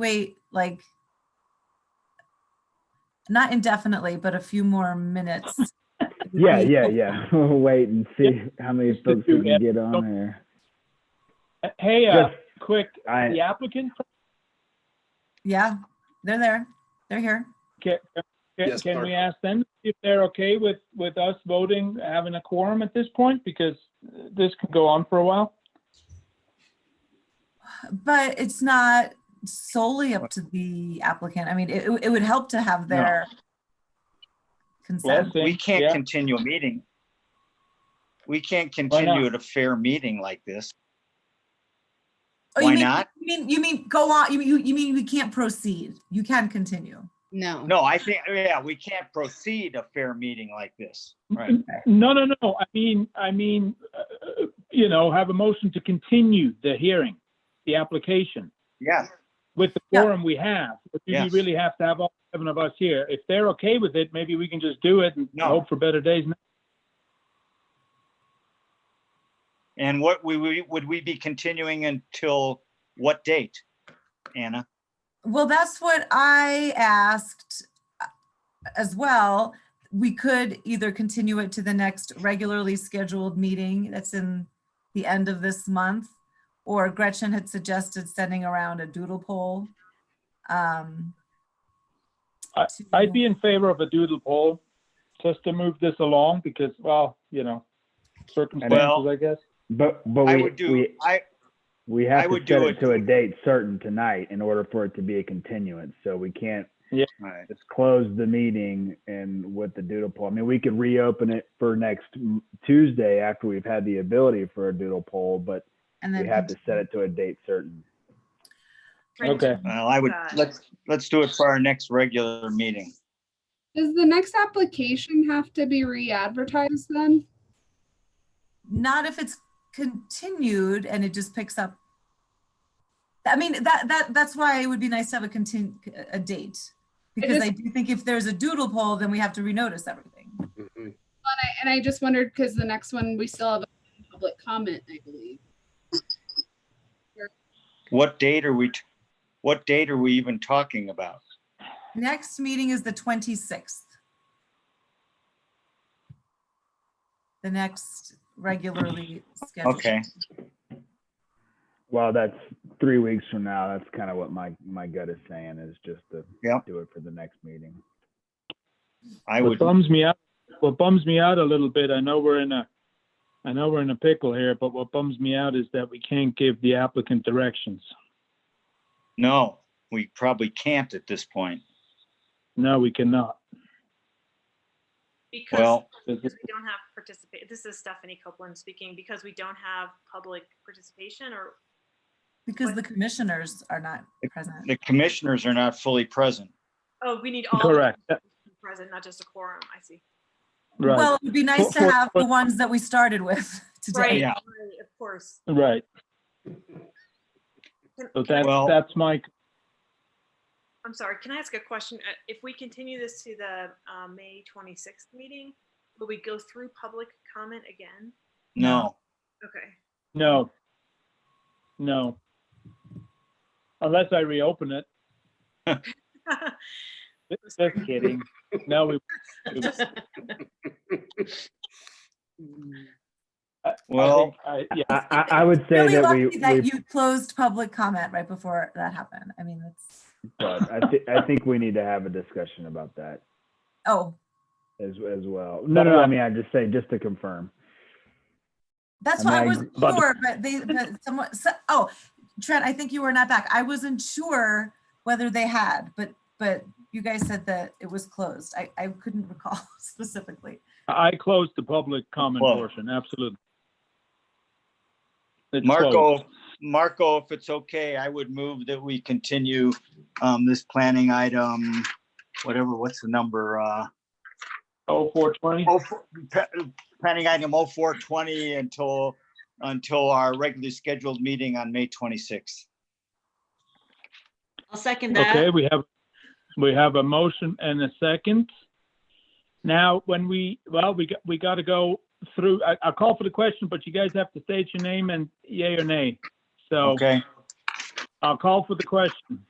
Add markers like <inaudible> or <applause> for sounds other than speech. wait like not indefinitely, but a few more minutes. <laughs> Yeah, yeah, yeah. <laughs> We'll wait and see how many Just to folks we do can ad- get on there. Hey, uh, Just- quick, I, the applicant, Yeah, they're there. They're here. can, can- Yes, can Mark. we ask them if they're okay with, with us voting, having a quorum at this point? Because this could go on for a while. But it's not solely up to the applicant. I mean, it, it would help to have No. their consent. Well, We can't yeah. continue a meeting. We can't not? continue at a fair meeting like this. Oh, you why mean- not? You mean, you mean, go on, you, you, you mean we can't proceed? You can continue. No. No, I think, yeah, we can't proceed a fair meeting like this. Right. No, no, no, I mean, I mean, uh, you know, have a motion to continue the hearing, the application. Yeah, With the Yeah. quorum we have, but do we Yes. really have to have all seven of us here? If they're okay with it, maybe we can just do it and No. hope for better days. and what, we, we, would we be continuing until what date, Anna? Well, that's what I asked uh, as well. We could either continue it to the next regularly scheduled meeting that's in the end of this month, or Gretchen had suggested sending around a doodle poll. um, I'd to- be in favor of a doodle poll, just to move this along, because, well, you know, circumstances, Well- I guess. but, but I we, would do, we, I, we I have to would set do it it- to a date certain tonight in order for it to be a continuance. So we can't all right. just close the meeting and with the doodle poll. I mean, we could reopen it for next m- Tuesday after we've had the ability for a doodle poll, but And then. we have to set it to a date certain. Okay. well, I would, let's, let's do it for our next regular meeting. Does the next application have to be re-advertised then? Not if it's continued and it just picks up. I mean, that, that, that's why it would be nice to have a contin, a date. Because is- I do think if there's a doodle poll, then we have to renotice everything. Mhm. I- And I just wondered, because the next one, we still have a public comment, I believe. What date are we, t- what date are we even talking about? Next meeting is the twenty-sixth. The next regularly scheduled. Okay, Well, that's three weeks from now. That's kind of what my, my gut is saying is just to Yep. do it for the next meeting. I What would, bums me out, what bums me out a little bit, I know we're in a, I know we're in a pickle here, but what bums me out is that we can't give the applicant directions. no, we probably can't at this point. No, we cannot. Because Well, This because is- we don't have participate, this is Stephanie Copeland speaking, because we don't have public participation or, Because the commissioners are not present. the commissioners are not fully present. oh, we need all. the Correct, that- Present, not just a quorum, I see. right, Well, it would be nice to For- for- have the ones that we started with <laughs> Right, today. Yeah. right, of course. right. So that's, Well- that's my, I'm sorry, can I ask a question? Uh, If we continue this to the uh, May 26th meeting, will we go through public comment again? No, Okay, <laughs> no. No. Unless I reopen it. Just kidding. No, we. I- I Well- think I- Yeah, I, I, I would say Really that we, lucky that we, you closed public comment right before that happened. I mean, that's, but I thi- I think we need to have a discussion about that oh, as, as well. No, no, no, I mean, I'm just saying, just to confirm. that's And what I then- wasn't but- sure, but they, but someone, so- oh, Trent, I think you were not back. I wasn't sure whether they had, but, but you guys said that it was closed. I, I couldn't <laughs> recall specifically. I closed the public comment Well- portion, absolutely. It's closed. Marco, Marco, if it's okay, I would move that we continue um, this planning item, whatever, what's the number? uh, Oh, four twenty? oh, four- pa- Planning item 0420 until, until our regularly scheduled meeting on May 26th. I'll second Okay, that. we have, we have a motion and a second. Now, when we, well, we got, we gotta go through, I, I'll call for the question, but you guys have to state your name and yay or nay. So Okay, I'll call for the question.